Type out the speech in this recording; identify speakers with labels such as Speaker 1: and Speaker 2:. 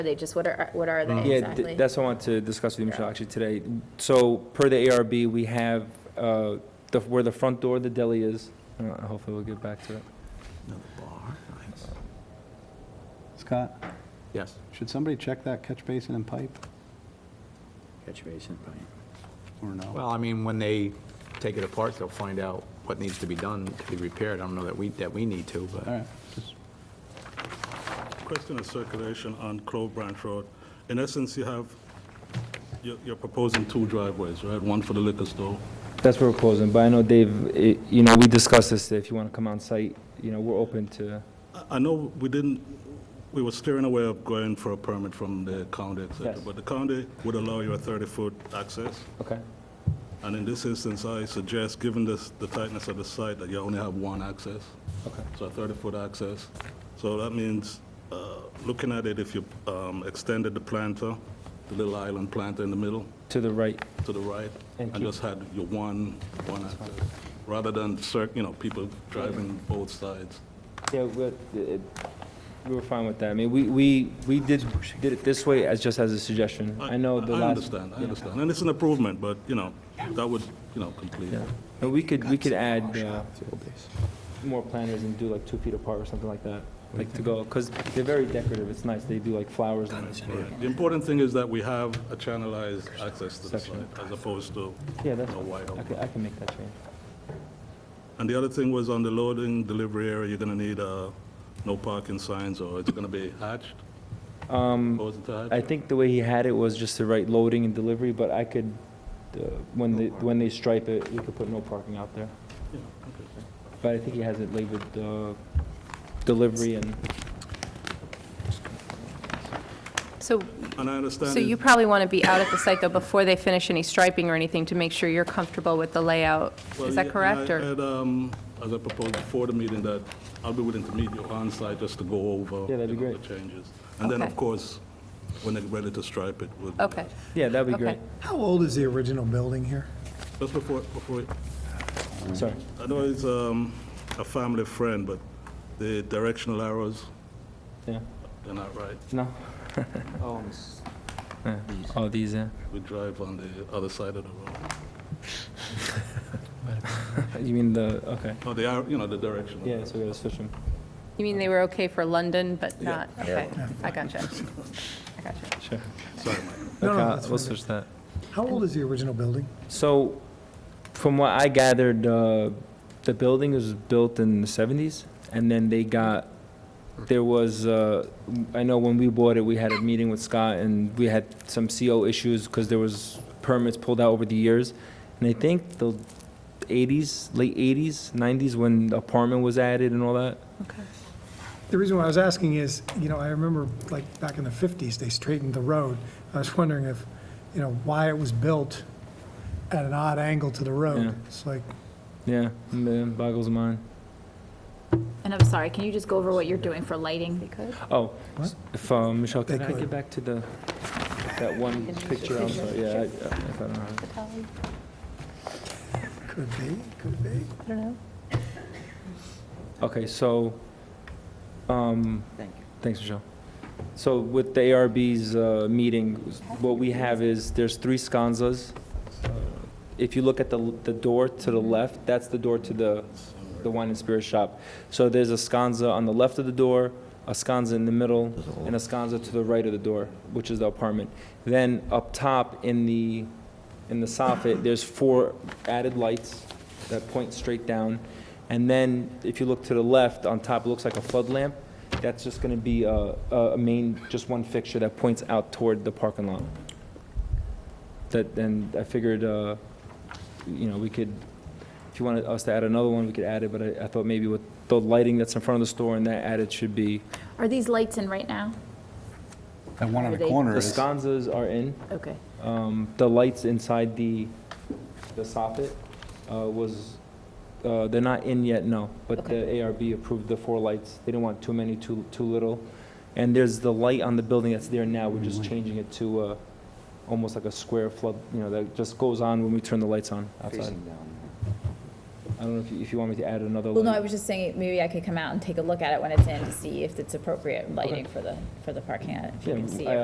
Speaker 1: are they? Just what are, what are
Speaker 2: Mm.
Speaker 1: they
Speaker 3: Yeah, th-
Speaker 1: exactly?
Speaker 3: that's what I want to discuss with you, Michelle, actually, today. So per the ARB, we have, uh, the, where the front door of the deli is, uh, hopefully we'll get back to it.
Speaker 4: Another bar, nice.
Speaker 5: Scott,
Speaker 4: Yes.
Speaker 5: should somebody check that catch basin and pipe,
Speaker 6: Catch basin, right.
Speaker 5: or no?
Speaker 4: Well, I mean, when they take it apart, they'll find out what needs to be done to be repaired. I don't know that we, that we need to,
Speaker 5: All
Speaker 4: but
Speaker 5: right, just,
Speaker 2: Question of circulation on Clove Branch Road. In essence, you have, you're you're proposing two driveways, right? One for the liquor store.
Speaker 3: That's where we're closing, but I know, Dave, it- you know, we discussed this, if you want to come on site, you know, we're open to,
Speaker 2: I- I know we didn't, we were steering away of going for a permit from the county, et cetera,
Speaker 3: Yes.
Speaker 2: but the county would allow you a 30-foot access.
Speaker 3: okay?
Speaker 2: And in this instance, I suggest, given this- the tightness of the site, that you only have one access.
Speaker 3: Okay.
Speaker 2: So a 30-foot access. So that means, uh, looking at it, if you um, extended the planter, the little island planter in the middle,
Speaker 3: To the right,
Speaker 2: to the right
Speaker 3: And
Speaker 2: and
Speaker 3: keep-
Speaker 2: just had your one, one access, rather than, cir- you know, people driving both sides.
Speaker 3: yeah, we're, it- we were fine with that, I mean, we, we, we did, did it this way as, just as a suggestion. I know the last.
Speaker 2: I understand, I understand. And it's an improvement, but, you know, that would, you know, complete.
Speaker 3: Yeah, and we could, we could add, uh, more planters and do like two feet apart or something like that, like to go, because they're very decorative, it's nice, they do like flowers and everything.
Speaker 2: The important thing is that we have a channelized access to the
Speaker 3: Section.
Speaker 2: site, as opposed to,
Speaker 3: Yeah,
Speaker 2: you
Speaker 3: that's,
Speaker 2: know, wide
Speaker 3: I
Speaker 2: open.
Speaker 3: can, I can make that change.
Speaker 2: And the other thing was on the loading, delivery area, you're gonna need, uh, no parking signs, or it's gonna be hatched? Proposing to hatch?
Speaker 3: Um, I think the way he had it was just the right loading and delivery, but I could, uh, when they, when they stripe it, we could put no parking out there.
Speaker 2: Yeah, okay.
Speaker 3: But I think he has it labeled, uh, delivery and,
Speaker 1: So,
Speaker 2: And I understand.
Speaker 1: so
Speaker 2: it-
Speaker 1: you probably want to be out at the site, though, before they finish any striping or anything, to make sure you're comfortable with the layout.
Speaker 2: Well,
Speaker 1: Is
Speaker 2: yeah,
Speaker 1: that
Speaker 2: and
Speaker 1: correct,
Speaker 2: I
Speaker 1: or?
Speaker 2: had, um, as I proposed before the meeting, that I'll be willing to meet you on site just to go over.
Speaker 3: Yeah, that'd be
Speaker 2: you know,
Speaker 3: great.
Speaker 2: The changes. And then,
Speaker 1: Okay.
Speaker 2: of course, when they're ready to stripe it, we'll. do
Speaker 1: Okay,
Speaker 2: that.
Speaker 3: yeah, that'd be
Speaker 1: okay.
Speaker 3: great,
Speaker 7: How old is the original building here?
Speaker 2: Just before, before,
Speaker 3: sorry.
Speaker 2: I know it's, um, a family friend, but the directional arrows,
Speaker 3: Yeah,
Speaker 2: they're not right.
Speaker 3: no?
Speaker 7: Oh,
Speaker 3: Yeah. Oh, these, yeah.
Speaker 2: We drive on the other side of the road.
Speaker 3: You mean the, okay,
Speaker 2: No, they are, you know, the directional.
Speaker 3: yeah,
Speaker 2: arrows.
Speaker 3: so we gotta switch them.
Speaker 1: You mean they were okay for London, but
Speaker 2: Yeah.
Speaker 1: not, okay, I gotcha. I gotcha.
Speaker 3: Sure.
Speaker 2: Sorry, Mike.
Speaker 7: No, no,
Speaker 3: Okay,
Speaker 7: that's
Speaker 3: we'll
Speaker 7: fine.
Speaker 3: switch that.
Speaker 7: How old is the original building?
Speaker 3: So, from what I gathered, uh, the building was built in the seventies, and then they got, there was, uh, I know when we bought it, we had a meeting with Scott, and we had some CO issues, because there was permits pulled out over the years, and I think the eighties, late eighties, nineties, when the apartment was added and all that.
Speaker 1: Okay.
Speaker 7: The reason why I was asking is, you know, I remember like back in the 50s, they straightened the road. I was wondering if, you know, why it was built at an odd angle to the
Speaker 3: Yeah.
Speaker 7: road. It's like,
Speaker 3: Yeah, man, boggles the mind.
Speaker 8: And I'm sorry, can you just go over what you're doing for lighting?
Speaker 3: Oh,
Speaker 7: What?
Speaker 3: if, uh, Michelle,
Speaker 7: They
Speaker 3: can I
Speaker 7: could.
Speaker 3: get back to the, that one picture, I'm sorry, yeah, I- I- if I don't have it.
Speaker 7: could be, could be.
Speaker 3: Okay, so, um,
Speaker 6: Thank you.
Speaker 3: thanks, Michelle. So with the ARB's uh, meeting, what we have is, there's three sconzas. If you look at the, the door to the left, that's the door to the, the wine and spirit shop. So there's a sconza on the left of the door, a sconza in the middle, and a sconza to the right of the door, which is the apartment. Then up top in the, in the soffit, there's four added lights that point straight down. And then, if you look to the left, on top, it looks like a flood lamp. That's just gonna be a, a main, just one fixture that points out toward the parking lot. That, and I figured, uh, you know, we could, if you wanted us to add another one, we could add it, but I, I thought maybe with the lighting that's in front of the store and that added should be,
Speaker 8: Are these lights in right now?
Speaker 5: that one on
Speaker 8: Are
Speaker 5: the
Speaker 8: they-
Speaker 5: corner
Speaker 3: the
Speaker 5: is,
Speaker 3: sconzas are in.
Speaker 8: Okay.
Speaker 3: Um, the lights inside the, the soffit, uh, was, uh, they're not in yet, no, but the ARB approved the four lights. They didn't want too many, too, too little. And there's the light on the building that's there now, we're just changing it to, uh, almost like a square flood, you know, that just goes on when we turn the lights on outside.
Speaker 6: Facing down.
Speaker 3: I don't know if you, if you want me to add another
Speaker 8: Well,
Speaker 3: light.
Speaker 8: no, I was just saying, maybe I could come out and take a look at it when it's in to see if it's appropriate lighting for the, for the parking lot, if you
Speaker 3: Yeah,
Speaker 8: can see
Speaker 3: I-
Speaker 8: it.